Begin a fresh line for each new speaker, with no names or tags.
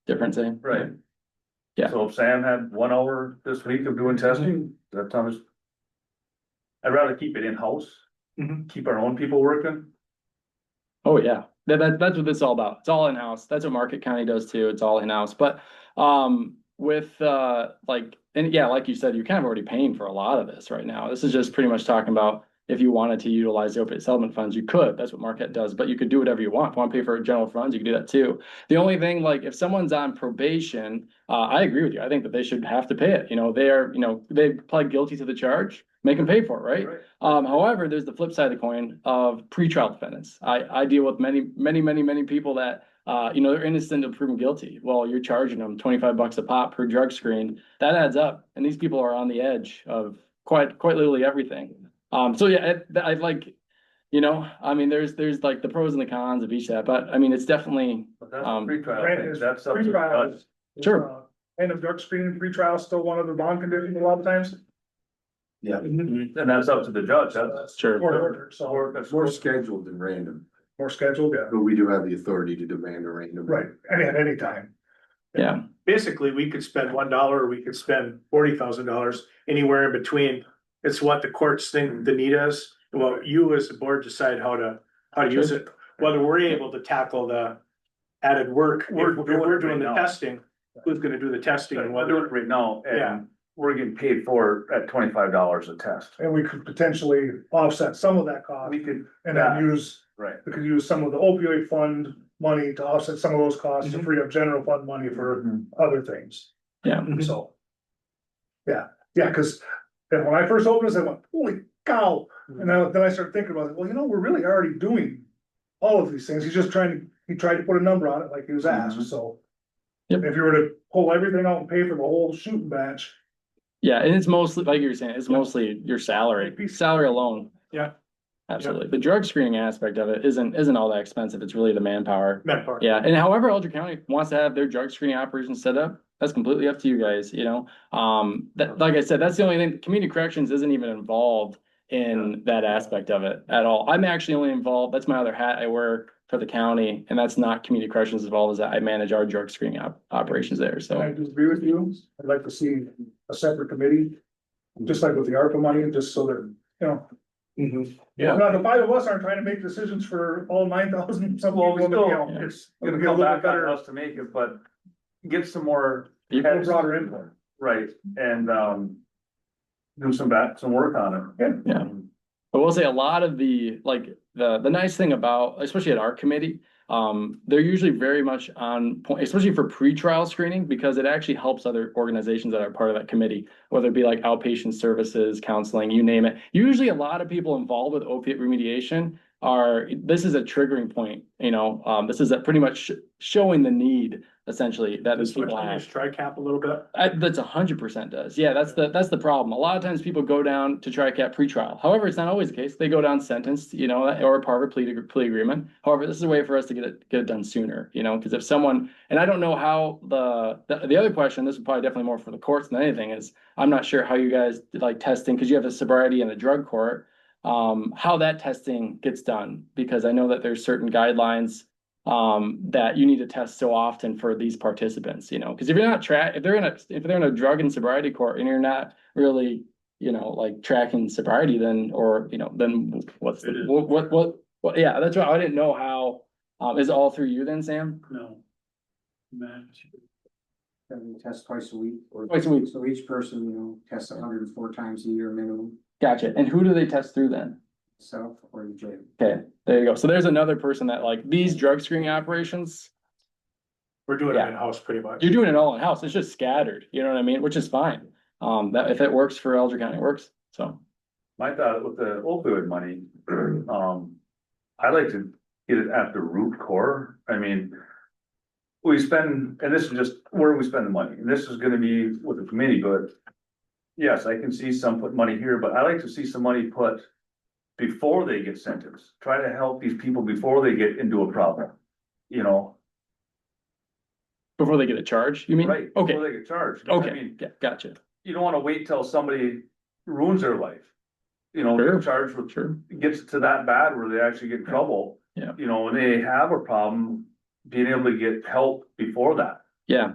different thing.
Right.
Yeah.
So if Sam had one hour this week of doing testing, that time is. I'd rather keep it in-house, keep our own people working.
Oh, yeah, that, that, that's what this is all about. It's all in-house. That's what Market County does too. It's all in-house, but, um, with, uh, like, and yeah, like you said, you're kind of already paying for a lot of this right now. This is just pretty much talking about if you wanted to utilize the opiate settlement funds, you could. That's what Marquette does, but you could do whatever you want. If you want to pay for general funds, you can do that too. The only thing, like, if someone's on probation, uh, I agree with you. I think that they should have to pay it. You know, they are, you know, they pled guilty to the charge, make them pay for it, right? Um, however, there's the flip side of the coin of pretrial defendants. I, I deal with many, many, many, many people that, uh, you know, they're innocent until proven guilty. Well, you're charging them twenty-five bucks a pop per drug screen. That adds up. And these people are on the edge of quite, quite literally everything. Um, so yeah, I, I like, you know, I mean, there's, there's like the pros and the cons of each of that, but I mean, it's definitely,
But that's
Um,
pretrial,
Right,
thing.
it's
that's up to
pretrial.
us.
Sure.
Uh, And if drug screening pretrial is still one of the bond conditions a lot of times.
Yeah.
Mhm.
And that's up to the judge, that's.
sure.
Court order, so
Mm-hmm. Or that's
It's more scheduled than random,
more scheduled, yeah,
but we do have the authority to demand a random.
right, I mean, at any time.
Yeah.
basically, we could spend one dollar, or we could spend forty thousand dollars, anywhere in between. It's what the courts think the need is, and what you as the board decide how to, how to use it, whether we're able to tackle the added work. If
We're
we're,
doing it
we're doing
right
the
now.
testing, who's gonna do the testing and
We're doing it
whether,
right now,
Yeah.
and we're getting paid for it at twenty-five dollars a test.
And we could potentially offset some of that cost
We could,
and then use,
right,
we could use some of the opioid fund money to offset some of those costs to
Mhm.
free up general fund money for
Mm-hmm.
other things. Mm-hmm.
Yeah.
Mhm.
So. Yeah, yeah, cause then when I first opened this, I went, holy cow,
Mm.
and then, then I started thinking about it, well, you know, we're really already doing. All of these things, he's just trying to, he tried to put a number on it like he was asked,
Mhm.
so.
Yep.
If you were to pull everything out and pay for the whole shooting match,
Yeah, and it's mostly, like you were saying, it's mostly your salary, salary alone.
Yeah.
Absolutely. The drug screening aspect of it isn't, isn't all that expensive. It's really the manpower.
manpower.
Yeah, and however Eldrick County wants to have their drug screening operation set up, that's completely up to you guys, you know? Um, that, like I said, that's the only thing, community corrections isn't even involved in that aspect of it at all. I'm actually only involved, that's my other hat I wear for the county, and that's not community corrections involved, is that I manage our drug screening op- operations there,
I
so.
do agree with you, I'd like to see a separate committee. Just like with the ARPA money, just so that, you know.
Mm-hmm. Yeah.
Now, the five of us aren't trying to make decisions for all nine thousand, some
Well,
of
we
them, you
still,
know,
it's
It'll
gonna
get a
come
little
back
bit better.
on us to make it, but get some more.
People
a broader input.
Right, and, um. Do some back, some work on it.
Yeah. I will say a lot of the, like, the, the nice thing about, especially at our committee, um, they're usually very much on point, especially for pretrial screening, because it actually helps other organizations that are part of that committee, whether it be like outpatient services, counseling, you name it. Usually a lot of people involved with opiate remediation are, this is a triggering point, you know, um, this is a pretty much sh- showing the need essentially that these people have.
Strike cap a little bit.
I, that's a hundred percent does. Yeah, that's the, that's the problem. A lot of times people go down to TRICAT pretrial. However, it's not always the case. They go down sentenced, you know, or a part of a plea, plea agreement. However, this is a way for us to get it, get it done sooner, you know, because if someone, and I don't know how the, the, the other question, this is probably definitely more for the courts than anything is, I'm not sure how you guys did, like testing, because you have a sobriety and a drug court. Um, how that testing gets done, because I know that there's certain guidelines um, that you need to test so often for these participants, you know, because if you're not track, if they're in a, if they're in a drug and sobriety court and you're not really, you know, like tracking sobriety, then, or, you know, then what's,
It
the
is.
what, what, what, what, yeah, that's right. I didn't know how, um, is it all through you then, Sam?
No.
Then we test twice a week or.
Twice a week.
So each person, you know, tests hundred and four times a year minimum,
Gotcha. And who do they test through then?
self or the jail.
Okay, there you go. So there's another person that like these drug screening operations,
We're doing it
Yeah.
in-house pretty much.
you're doing it all in house. It's just scattered, you know what I mean? Which is fine. Um, that, if it works for Elder County, it works. So,
My thought with the opioid money, um, I like to get it at the root core, I mean. We spend, and this is just where we spend the money, and this is gonna be with the committee, but. Yes, I can see some put money here, but I like to see some money put. Before they get sentenced, try to help these people before they get into a problem, you know,
before they get a charge, you mean?
right?
Mm-hmm. Okay.
Before they get charged. I
Okay,
mean,
yeah, gotcha,
You don't wanna wait till somebody ruins their life. You know,
Sure.
they're charged with
sure,
gets to that bad where they actually get in trouble.
Yeah.
You know, when they have a problem, being able to get help before that.
yeah.